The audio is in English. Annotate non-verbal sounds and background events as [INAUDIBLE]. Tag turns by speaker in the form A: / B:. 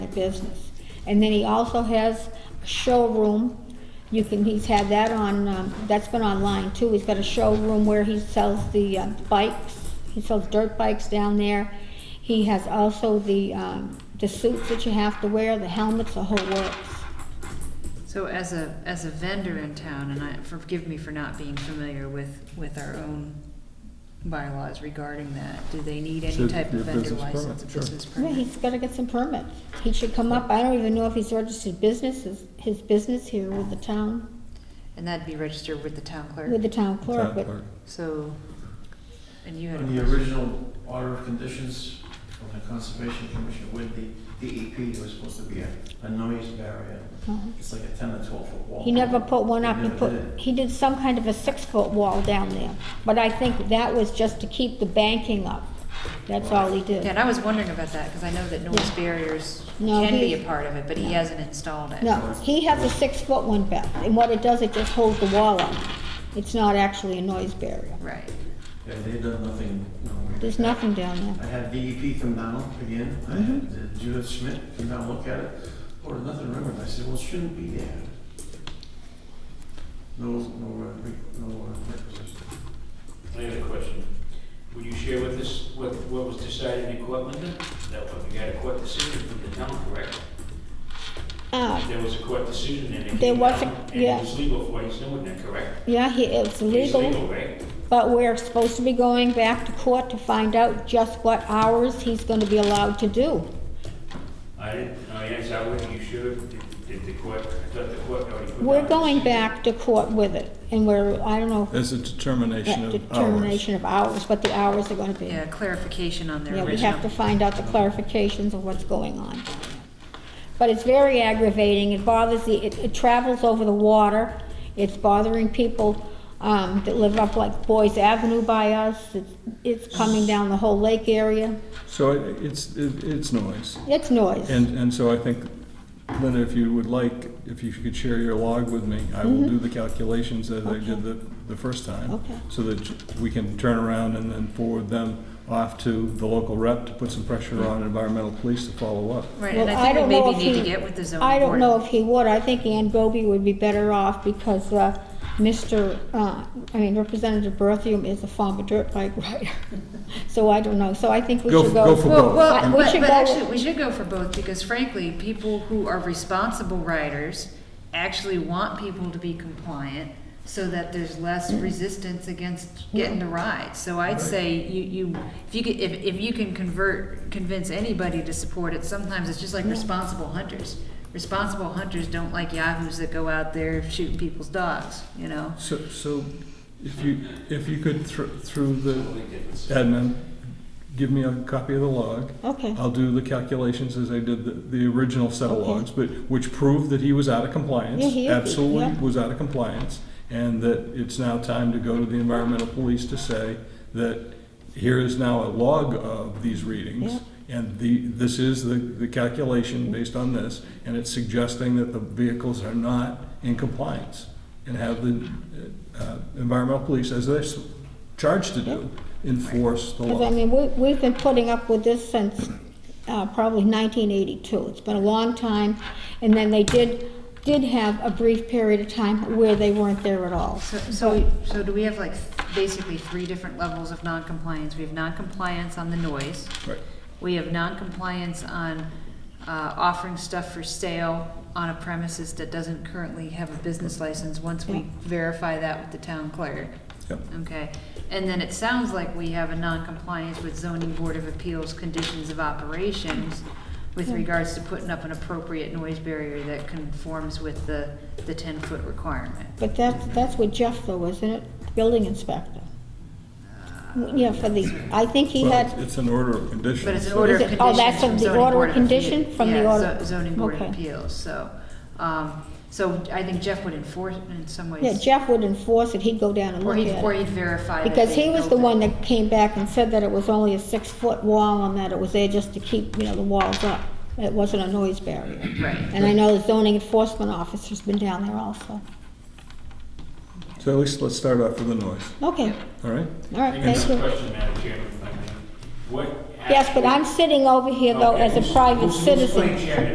A: business. And then he also has a showroom. You can, he's had that on, um, that's been online too. He's got a showroom where he sells the uh, bikes. He sells dirt bikes down there. He has also the, um, the suits that you have to wear, the helmets, the whole works.
B: So as a, as a vendor in town, and I, forgive me for not being familiar with, with our own bylaws regarding that, do they need any
C: Should
B: type
C: be
B: of
C: a
B: vendor
C: business permit,
B: license, a
C: sure.
B: business
A: Yeah,
B: permit?
A: he's gotta get some permits. He should come up, I don't even know if he's registered business, his, his business here with the town,
B: And that'd be registered with the town
A: with
B: clerk,
A: the town clerk,
C: Town
A: but
C: clerk.
B: so, and you had,
D: On the
B: a-
D: original order of conditions from the Conservation Commission with the DEP, there was supposed to be a, a noise barrier.
A: uh,
D: It's like a ten or twelve foot wall.
A: he never put one up,
D: He
A: he
D: never
A: put,
D: did.
A: he did some kind of a six-foot wall down there. But I think that was just to keep the banking up, that's all he
B: yeah,
A: did.
B: and I was wondering about that, because I know that noise barriers
A: No,
B: can be
A: he-
B: a part of it, but he hasn't installed it.
A: No, he has a six-foot one, Beth, and what it does, it just holds the wall up. It's not actually a noise barrier.
B: Right,
D: Yeah, they've done nothing, no.
A: There's nothing Mm-hmm. down
D: I
A: there.
D: had E DEP come down again, I had Judith Schmidt come down, look at it, or nothing remembered, I said, well, it shouldn't be there. No, no, uh, re- no, uh, requisition.
E: I have a question. Would you share with us what, what was decided in court, Linda? That when we got a court decision from the town, correct?
A: Uh,
E: There was a court decision and it
A: There
E: came
A: was a-
E: down, and
A: yeah.
E: it was legal for what he's doing, then, correct?
A: yeah, he, it's
E: It's
A: legal.
E: legal, right?
A: But we're supposed to be going back to court to find out just what hours he's gonna be allowed to do.
E: I didn't, no, yes, I would, you should, did, did the court, I thought the court already put down.
A: We're
E: a
A: going
E: decision.
A: back to court with it, and we're, I don't know,
C: There's a determination
A: that
C: of hours.
A: determination of hours, what the hours are gonna be.
B: yeah, clarification on their
A: Yeah,
B: original.
A: we have to find out the clarifications of what's going on. down there. But it's very aggravating, it bothers the, it, it travels over the water, it's bothering people, um, that live up like Boys Avenue by us, it's, it's coming down the whole lake area,
C: So it- it's, it- it's noise.
A: it's noise.
C: And, and so I think, Linda, if you would like, if you could share your log with me, I will do the calculations as I did the, the first time.
A: Mm-hmm. Okay.
C: So that we can turn around and then forward them off to the local rep to put some pressure on environmental police to follow up.
B: Right,
A: Well,
B: and I think
A: don't
B: we
A: know
B: maybe
A: if
B: need to
A: he-
B: get with the zoning board.
A: I don't know if he would, I think Ann Goby would be better off because, uh, Mr., uh, I mean Representative Berthium is a former dirt bike rider. [LAUGHS] So I don't know, so I think we
C: Go
A: should
C: f- go
A: go.
C: for
B: Well,
C: both.
B: well,
A: We
B: but,
A: should
B: but
A: go-
B: actually, we should go for both, because frankly, people who are responsible riders actually want people to be compliant, so that there's less resistance against getting the ride. So I'd say you, you, if you could, if, if you can convert, convince anybody to support it, sometimes it's just like responsible hunters. Responsible hunters don't like yahoos that go out there shooting people's dogs, you know?
C: So, so if you, if you could, thr- through the admin, give me a copy of the log.
A: Okay,
C: I'll do the calculations as I did the, the original set of
A: Okay.
C: logs, but, which proved that he was out of
A: Yeah,
C: compliance.
A: he is, yeah.
C: Absolutely was out of compliance, and that it's now time to go to the environmental police to say that here is now a log of these readings, and the, this is the, the calculation based on this, and it's suggesting that the vehicles are not in compliance, and have the, uh, environmental police, as they're s- charged to do, enforce the
A: because I
C: law.
A: mean, we, we've been putting up with this since, uh, probably nineteen eighty-two, it's been a long time. And then they did, did have a brief period of time where they weren't there at all.
B: So, so, we- so do we have like th- basically three different levels of non-compliance? We have non-compliance on the noise.
C: Right.
B: We have non-compliance on uh, offering stuff for sale on a premises that doesn't currently have a business license, once we verify that with the town clerk.
C: Yep.
B: Okay, and then it sounds like we have a non-compliance with zoning board of appeals conditions of operations with regards to putting up an appropriate noise barrier that conforms with the, the ten-foot requirement.
A: But that's, that's with Jeff though, isn't it? Building inspector. Yeah, for the, I think he
C: Well,
A: had,
C: It's an order of conditions.
B: But it's an
C: so-
B: order of
A: Is it-
B: condition.
A: oh, that's
B: from
A: of the
B: zoning
A: order
B: board
A: of
B: appeal-
A: condition from the
B: yeah,
A: order-
B: zo- Zoning board of
A: okay.
B: appeals, so, um, so I think Jeff would enforce it in some ways.
A: yeah, Jeff would enforce it, he'd go down and
B: Or
A: look
B: he'd, or
A: at it.
B: he'd verify that.
A: Because
B: they
A: he was
B: built
A: the
B: it.
A: one that came back and said that it was only a six-foot wall and that it was there just to keep, you know, the walls up. It wasn't a noise barrier.
B: Right,
A: And I know the zoning enforcement officer's been down there also.
C: So at least let's start off with the noise,
A: Okay,
C: all right?
A: all right,
E: I
A: thank
E: have a
A: you.
E: question, Madam Chairman, if I may. What?
A: Yes, but I'm sitting over here though as a
E: Okay, who's-
A: private
E: who's- who's
A: citizen.
E: playing chairman?